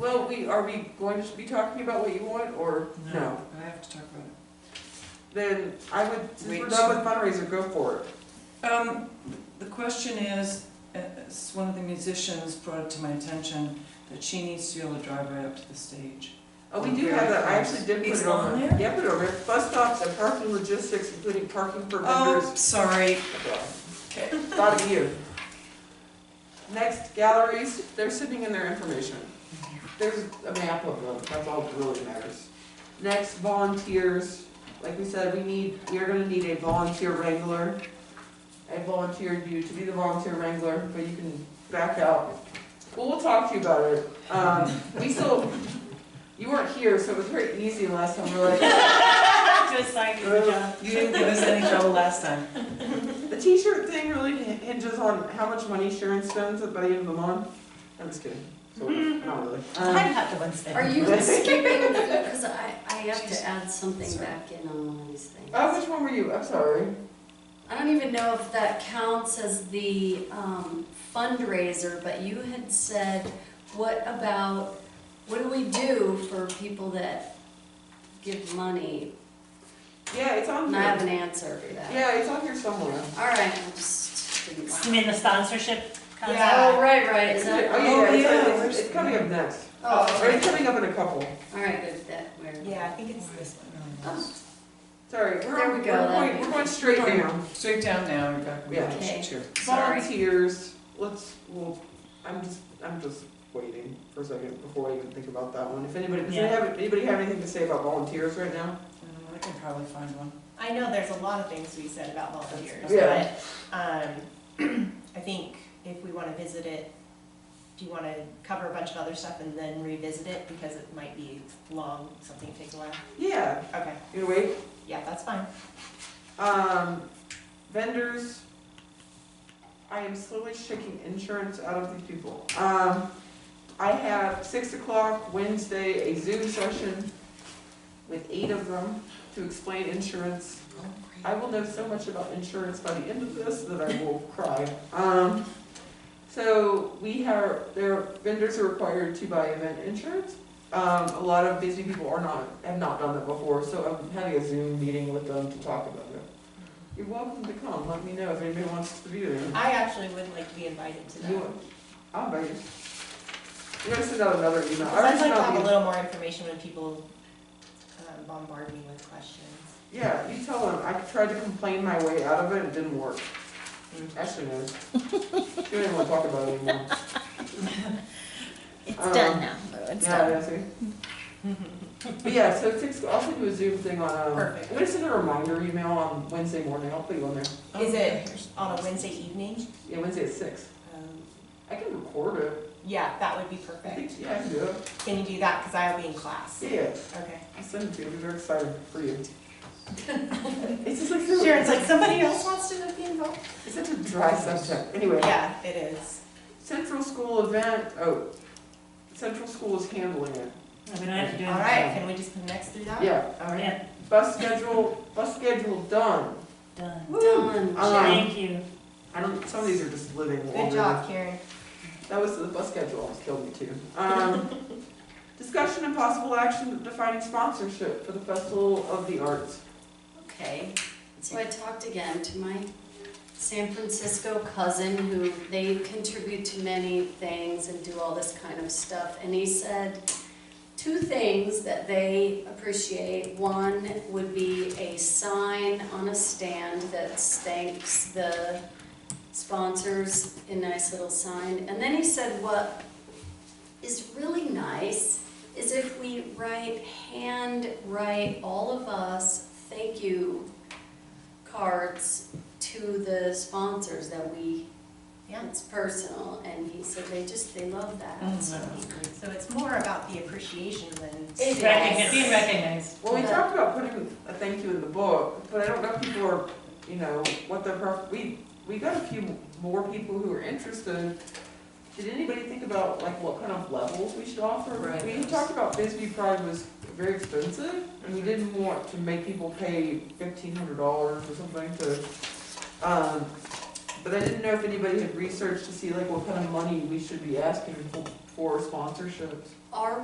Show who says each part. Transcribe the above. Speaker 1: know, we, are we going to be talking about what you want, or no?
Speaker 2: I have to talk about
Speaker 1: Then I would, since we're
Speaker 2: Wait.
Speaker 1: done with fundraiser, go for it.
Speaker 2: it. Um, the question is, uh, s- one of the musicians brought it to my attention that she needs to be able to drive right up to the stage.
Speaker 1: Oh, we do have that, I actually did put
Speaker 2: It's
Speaker 1: it on.
Speaker 2: on
Speaker 1: there.
Speaker 2: there?
Speaker 1: Yeah, put it on there, bus stops and parking logistics, including parking for
Speaker 2: Oh,
Speaker 1: vendors.
Speaker 2: sorry.
Speaker 1: Oh. Okay, thought of you. Next, galleries, they're sitting in their information. There's a map of them, that's all that really matters. Next, volunteers, like we said, we need, we are gonna need a volunteer wrangler. I volunteered you to be the volunteer wrangler, but you can back out. Well, we'll talk to you about it. Um, we still, you weren't here, so it was very easy last time, we're like,
Speaker 3: Just like the job.
Speaker 2: You didn't give us any trouble last time.
Speaker 1: The t-shirt thing really hin- hinges on how much money Sharon spends at the end of the month. I'm just kidding. So, not really. Um,
Speaker 3: have the one thing.
Speaker 4: Are you skipping, because I, I have
Speaker 3: She's-
Speaker 4: to add something
Speaker 3: sorry.
Speaker 4: back in on one of these things.
Speaker 1: oh, which one were you? I'm sorry.
Speaker 4: I don't even know if that counts as the um, fundraiser, but you had said, what about, what do we do for people that give money?
Speaker 1: Yeah, it's on
Speaker 4: And I have
Speaker 1: here.
Speaker 4: an answer for that.
Speaker 1: Yeah, it's on here somewhere.
Speaker 4: All right, I just didn't.
Speaker 3: You mean the sponsorship
Speaker 4: Oh,
Speaker 3: concept?
Speaker 4: right, right, is
Speaker 1: Is it-
Speaker 4: that?
Speaker 1: oh yeah, yeah,
Speaker 2: Oh,
Speaker 1: it's-
Speaker 2: yeah,
Speaker 1: it's,
Speaker 2: where's-
Speaker 1: it's coming up next.
Speaker 4: Oh,
Speaker 1: Or it's
Speaker 4: okay.
Speaker 1: coming up in a couple.
Speaker 4: all right, good, that, where?
Speaker 3: Yeah, I think it's this one.
Speaker 1: Sorry, we're,
Speaker 4: There we
Speaker 1: on-
Speaker 4: go,
Speaker 1: we're,
Speaker 4: that'd
Speaker 1: going,
Speaker 4: be
Speaker 1: we're going straight
Speaker 2: Sorry.
Speaker 1: down.
Speaker 2: Oh. Straight down now, you're back.
Speaker 1: Yeah.
Speaker 4: Okay.
Speaker 2: Sure.
Speaker 4: Sorry.
Speaker 1: Volunteers. Let's. Well, I'm just. I'm just waiting for a second before I even think about that one. If anybody does
Speaker 3: Yeah.
Speaker 1: anybody have, anybody have anything to say about volunteers right now?
Speaker 2: Uh, I can probably find one.
Speaker 5: I know there's a lot of things to be said about volunteers,
Speaker 1: Yeah.
Speaker 5: but, um, I think if we wanna visit it, do you wanna cover a bunch of other stuff and then revisit it, because it might be long, something takes a while?
Speaker 1: Yeah.
Speaker 5: Okay,
Speaker 1: You wait.
Speaker 5: yeah, that's fine.
Speaker 1: Um, vendors, I am slowly shaking insurance out of these people. Um, I have six o'clock Wednesday, a Zoom session with eight of them to explain insurance. I will know so much about insurance by the end of this that I will cry. Um, so we have, there, are- vendors are required to buy event insurance. Um, a lot of busy people are not, have not done that before, so I'm having a Zoom meeting with them to talk about it. You're welcome to come, let me know if anybody wants to be there.
Speaker 5: I actually would like to be invited to that.
Speaker 1: You, I'll invite you. I'm gonna send out another email. I
Speaker 5: I'd
Speaker 1: already
Speaker 5: like
Speaker 1: sent
Speaker 5: to
Speaker 1: out
Speaker 5: have
Speaker 1: the-
Speaker 5: a little more information when people um, bombard me with questions.
Speaker 1: Yeah, you tell them, I tried to complain my way out of it, it didn't work. Ashley knows. She didn't wanna talk about it anymore.
Speaker 3: It's
Speaker 1: Um,
Speaker 3: done now, Lou, it's
Speaker 1: Yeah,
Speaker 3: done.
Speaker 1: yeah, see? But yeah, so six, I'll send you a Zoom thing on, um,
Speaker 5: Perfect.
Speaker 1: I'm gonna send a reminder email on Wednesday morning, I'll put you on there.
Speaker 5: Is it on a Wednesday evening?
Speaker 1: Yeah, Wednesday at six.
Speaker 5: Um,
Speaker 1: I can record it.
Speaker 5: Yeah, that would be
Speaker 1: I
Speaker 5: perfect.
Speaker 1: think, yeah, I can do it.
Speaker 5: Can you do that, because I'll be in class?
Speaker 1: Yeah,
Speaker 5: Okay.
Speaker 1: I'll send it to you, I'll be very excited for you. It's just like,
Speaker 5: Sure,
Speaker 1: so-
Speaker 5: it's like somebody else wants to be involved.
Speaker 1: it's such a dry subject, anyway.
Speaker 5: Yeah, it is.
Speaker 1: Central school event, oh, central school is handling it.
Speaker 3: We don't have to do
Speaker 5: All
Speaker 3: it.
Speaker 5: right, can we just put next through that?
Speaker 1: Yeah,
Speaker 5: All right.
Speaker 3: Yeah,
Speaker 1: bus schedule, bus schedule done.
Speaker 3: done.
Speaker 4: Done.
Speaker 1: Um,
Speaker 3: Thank you.
Speaker 1: I don't, some of these are just living
Speaker 5: Good
Speaker 1: longer.
Speaker 5: job, Karen.
Speaker 1: That was the bus schedule, almost killed me too. Um, discussion and possible action defining sponsorship for the Festival of the Arts.
Speaker 4: Okay, so I talked again to my San Francisco cousin who, they contribute to many things and do all this kind of stuff. And he said two things that they appreciate. One would be a sign on a stand that thanks the sponsors, a nice little sign. And then he said what is really nice is if we write, hand write, all of us, thank you cards to the sponsors that we,
Speaker 5: Yeah.
Speaker 4: it's personal, and he said they just, they love
Speaker 2: Oh,
Speaker 4: that, so.
Speaker 5: So it's more about the appreciation than.
Speaker 4: It
Speaker 3: Recogni-
Speaker 4: Yes.
Speaker 3: Being recognized.
Speaker 1: Well, we
Speaker 4: Yeah.
Speaker 1: talked about putting a thank you in the book, but I don't know if people are, you know, what their, pref- we, we got a few more people who are interested. Did anybody think about like what kind of levels we should offer?
Speaker 2: Right.
Speaker 1: We had talked about Bisbee Pride was very expensive, and we didn't want to make people pay fifteen hundred dollars or something to, um, but I didn't know if anybody had researched to see like what kind of money we should be asking for- for sponsorships.
Speaker 4: Are